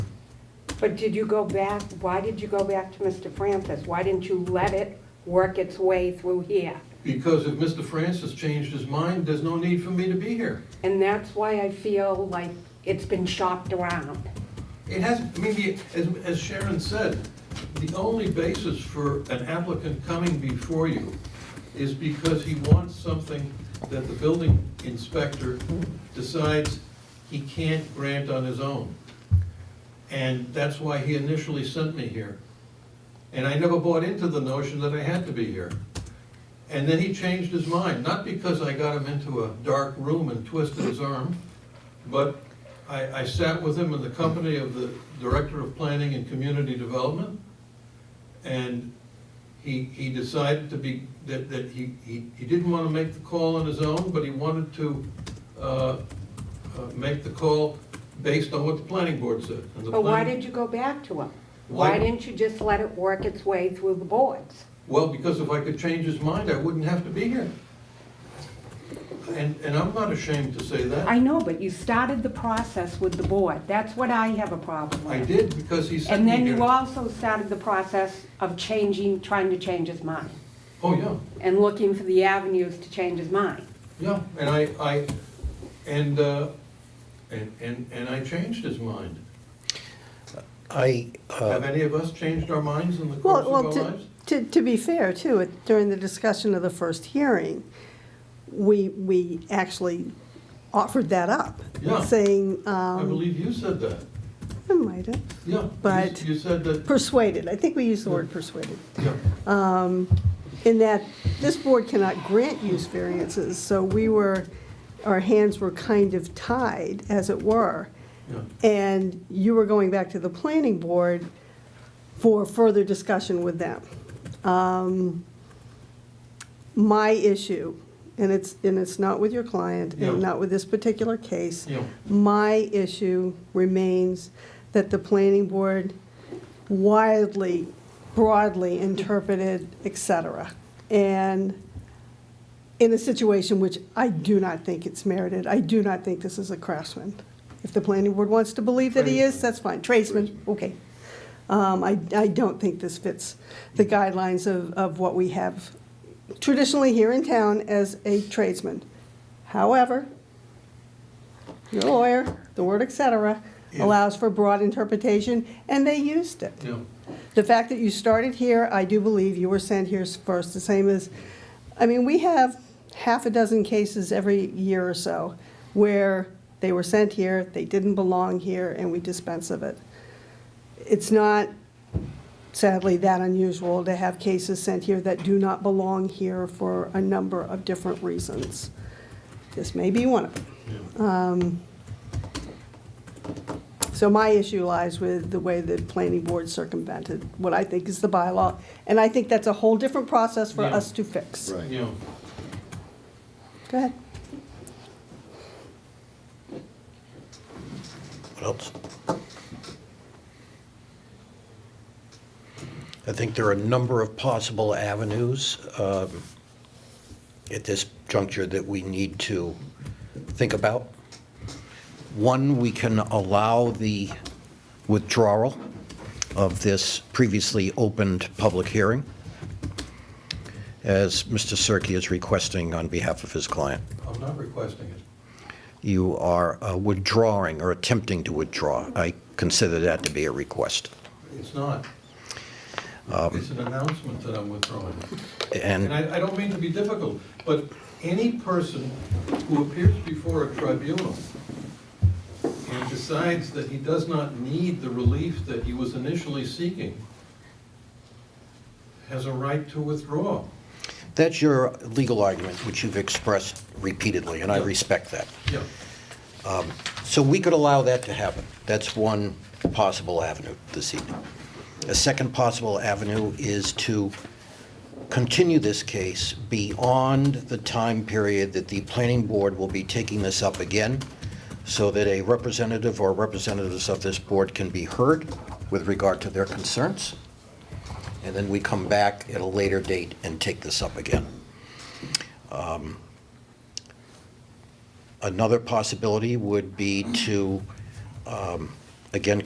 But did you go back, why did you go back to Mr. Francis? Why didn't you let it work its way through here? Because if Mr. Francis changed his mind, there's no need for me to be here. And that's why I feel like it's been shopped around. It has, I mean, the- as as Sharon said, the only basis for an applicant coming before you is because he wants something that the building inspector decides he can't grant on his own. And that's why he initially sent me here. And I never bought into the notion that I had to be here. And then he changed his mind, not because I got him into a dark room and twisted his arm, but I, I sat with him in the company of the Director of Planning and Community Development, and he, he decided to be, that, that he, he, he didn't want to make the call on his own, but he wanted to, uh, uh, make the call based on what the planning board said. And the But why planning- did you go back to him? Why Why- didn't you just let it work its way through the boards? Well, because if I could change his mind, I wouldn't have to be here. And, and I'm not ashamed to say that. I know, but you started the process with the board. That's what I have a problem with. I did, because he sent And me then you here. also started the process of changing, trying to change his mind, Oh, yeah. and looking for the avenues to change his mind. Yeah, and I, I, and, uh, and, and, and I changed his mind. I, uh, Have any of us changed our minds in the course of Well, our well, to- lives? to, to be fair, too, it- during the discussion of the first hearing, we, we actually offered that up. Yeah. Saying, I um, believe you said that, I might have yeah. you s- But- You said that, persuaded, I think we used the word persuaded, yeah, in that this board cannot grant use variances, so we were, our hands were kind of tied, as it were. yeah. And you were going back to the planning board for further discussion with them. Um, My issue, and it's, and it's not with your client, Yeah. and not with this particular case. Yeah. My issue remains that the planning board widely, broadly interpreted, et cetera. And in a situation which I do not think it's merited. I do not think this is a craftsman. If the planning board wants to believe that he is, that's fine. Tradesman, okay. Um, I, I don't think this fits the guidelines of, of what we have traditionally here in town as a tradesman. However, your lawyer, the word et cetera, Yeah. allows for broad interpretation, and they used it. Yeah, The fact that you started here, I do believe you were sent here first, the same as, I mean, we have half a dozen cases every year or so where they were sent here, they didn't belong here, and we dispense of it. It's not sadly that unusual to have cases sent here that do not belong here for a number of different reasons. This may be one of them. Um, yeah. So my issue lies with the way the planning board circumvented what I think is the bylaw, and I think that's a whole different process for Yeah. us to fix. Right. Yeah. Go ahead. what else? I think there are a number of possible avenues um, at this juncture that we need to think about. One, we can allow the withdrawal of this previously opened public hearing, as Mr. Cirque is requesting on behalf of his client. I'm not requesting it. you are uh, withdrawing or attempting to withdraw. I consider that to be a request. It's not. Um, It's an announcement that I'm withdrawing. And And I, I don't mean to be difficult, but any person who appears before a tribunal and decides that he does not need the relief that he was initially seeking has a right to withdraw. that's your legal argument, which you've expressed repeatedly, and I respect that. Yeah, So we could allow that to happen. That's one possible avenue this evening. A second possible avenue is to continue this case beyond the time period that the planning board will be taking this up again, so that a representative or representatives of this board can be heard with regard to their concerns, and then we come back at a later date and take this up again. Another possibility would be to, um, again,